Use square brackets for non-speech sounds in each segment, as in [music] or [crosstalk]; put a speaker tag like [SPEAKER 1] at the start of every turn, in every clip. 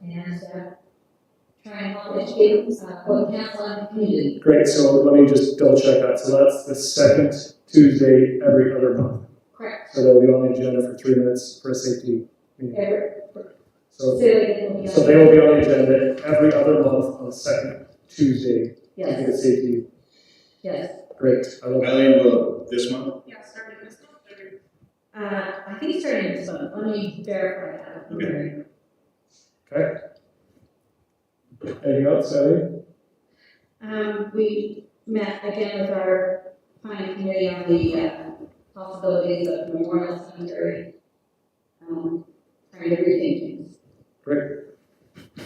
[SPEAKER 1] and uh, try and help educate uh, both council and the community.
[SPEAKER 2] Great, so let me just double check that. So that's the second Tuesday every other month.
[SPEAKER 1] Correct.
[SPEAKER 2] So they'll be on the agenda for three minutes for a safety meeting.
[SPEAKER 1] Every-
[SPEAKER 2] So,
[SPEAKER 1] Say it again,
[SPEAKER 2] so they will be on the agenda every other month on the second Tuesday to get
[SPEAKER 1] Yes,
[SPEAKER 2] a safety.
[SPEAKER 1] yes.
[SPEAKER 2] Great, I love that.
[SPEAKER 3] Eileen, will this month?
[SPEAKER 4] Yeah, starting this month, or-
[SPEAKER 1] Uh, I think it's starting this month, let me verify that.
[SPEAKER 3] Okay.
[SPEAKER 2] Anything else, Ellie?
[SPEAKER 1] Um, we met again with our planning committee on the uh, possibilities of memorial cemetery. Um, trying to rethink things.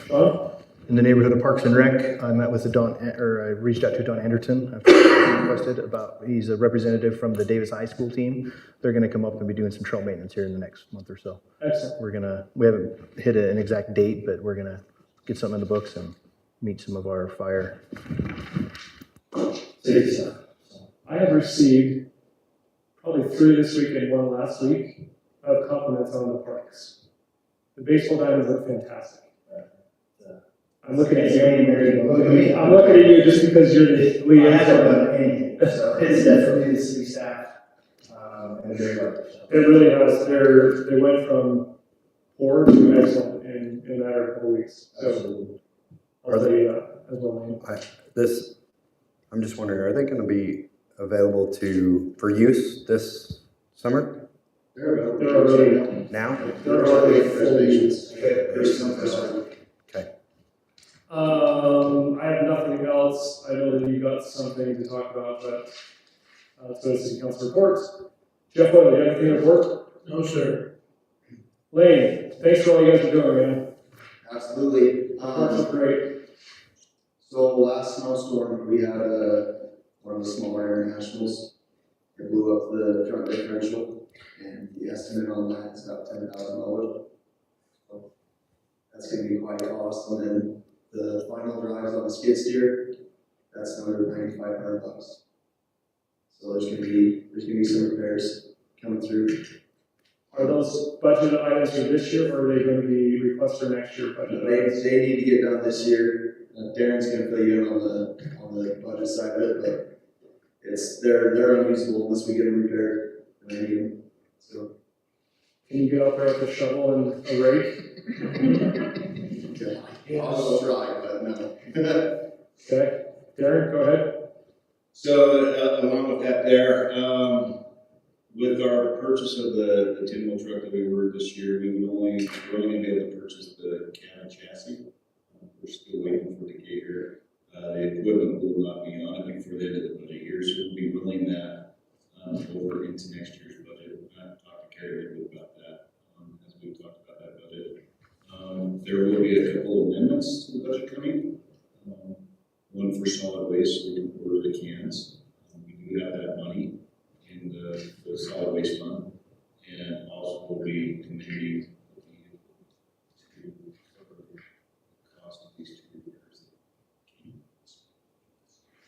[SPEAKER 2] Sean?
[SPEAKER 5] in the neighborhood of Parks and Rec. I met with Don, or I reached out to Don Anderson, after he requested about, he's a representative from the Davis High School team. They're gonna come up and be doing some trail maintenance here in the next month or so.
[SPEAKER 2] Excellent.
[SPEAKER 5] We're gonna, we haven't hit an exact date, but we're gonna get something in the books and meet some of our fire
[SPEAKER 2] Safety stuff. I have received probably three this week and one last week of compliments on the parks. The baseball diamonds look fantastic. I'm looking at you.
[SPEAKER 6] Look at me.
[SPEAKER 2] I'm looking at you just because you're the
[SPEAKER 6] We
[SPEAKER 2] lead.
[SPEAKER 6] have
[SPEAKER 2] actor.
[SPEAKER 6] a opinion, so it's definitely the city staff, um, and their work. so.
[SPEAKER 2] It really has, they're, they went from poor to excellent in, in a matter of a couple weeks, so
[SPEAKER 7] So
[SPEAKER 2] I'll tell you that as well, man.
[SPEAKER 7] this, I'm just wondering, are they gonna be available to, for use this summer,
[SPEAKER 2] They're already,
[SPEAKER 7] now?
[SPEAKER 2] they're already full agents.
[SPEAKER 3] There's some first.
[SPEAKER 2] Um, I have nothing else, I know that you got something to talk about, but, uh, so the city council report. Jeff, what, do you have anything to report?
[SPEAKER 3] No, sir.
[SPEAKER 2] Lane, thanks for all you guys are doing, man,
[SPEAKER 8] Absolutely.
[SPEAKER 3] Uh,
[SPEAKER 2] Parks
[SPEAKER 8] Um,
[SPEAKER 2] are great,
[SPEAKER 8] so last snowstorm, we had uh one of the smaller internationals. It blew up the front differential and the estimate on that is about ten thousand dollars. That's gonna be quite a cost. And then the final drives on the skid steer, that's another ninety-five hundred bucks. So there's gonna be, there's gonna be some repairs coming through.
[SPEAKER 2] are those budget items for this year, or are they gonna be requests for next year budget?
[SPEAKER 8] They, they need to get done this year. Uh, Darren's gonna fill you in on the, on the budget side of it, but it's, they're, they're unusable unless we get them repaired. and they need them. So,
[SPEAKER 2] Can you get out there with a shovel and a rake?
[SPEAKER 8] okay. I'll try, but no. [laughs]
[SPEAKER 2] Okay, Darren, go ahead.
[SPEAKER 3] So, uh, along with that there, um, with our purchase of the, the ten wheel truck that we ordered this year, we would only, we're only gonna be able to purchase the cab chassis. Uh, We're still waiting for the gator, uh, the equipment will not be on it before the end of the budget year, so we'll be rolling that, um, over into next year's budget. I've talked to Carrie a little bit about that, um, as we talked about that budget. Um, there will be a couple amendments to the budget coming, um, one for solid waste, so we can order the cans. Um, We do have that money in the, the solid waste fund, and also will be committing to cover the cost of these two repairs.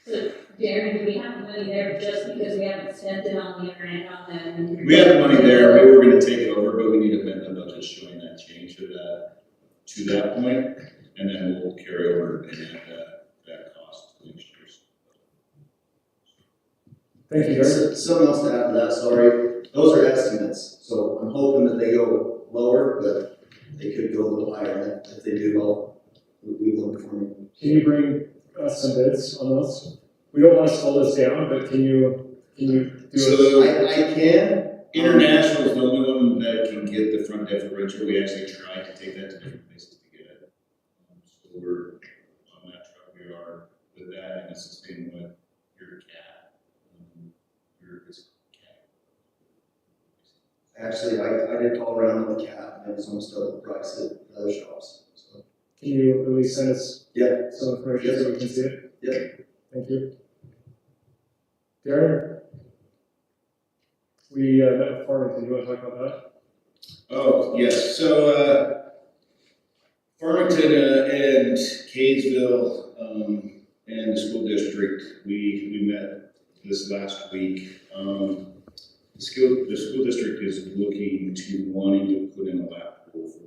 [SPEAKER 1] So Darren, do we have money there just because we haven't spent it on the grant on them?
[SPEAKER 3] We have the money there, we were gonna take it over, but we need to amend the budget showing that change to that, to that point, and then we'll carry over and add that, that cost to next year's.
[SPEAKER 2] Thank you, Darren.
[SPEAKER 8] So- Something else to add to that, sorry. Those are estimates, so I'm hoping that they go lower, but they could go a little higher. And If they do, I'll, we will inform you.
[SPEAKER 2] Can you bring us some bids on those? We don't want to slow this down, but can you, can you do it?
[SPEAKER 3] So-
[SPEAKER 8] I, I can,
[SPEAKER 3] International is the only one that can get the front differential, we actually tried to take that to different places to get it. Um, So we're on that truck, we are with that, and it's the same with your cat. um, Your, it's cat.
[SPEAKER 8] Actually, I, I did call around on the cab, and it was almost double the price at other shops, so.
[SPEAKER 2] Can you at least send us
[SPEAKER 8] Yeah,
[SPEAKER 2] some information so we can see it?
[SPEAKER 8] Yeah.
[SPEAKER 2] Thank you. Darren? We, uh, met with Farmington, you want to talk about that?
[SPEAKER 3] Oh, yes, so, uh, Farmington uh, and Kaysville, um, and the school district, we, we met this last week. Um, the school, the school district is looking to wanting to put in a lap pool for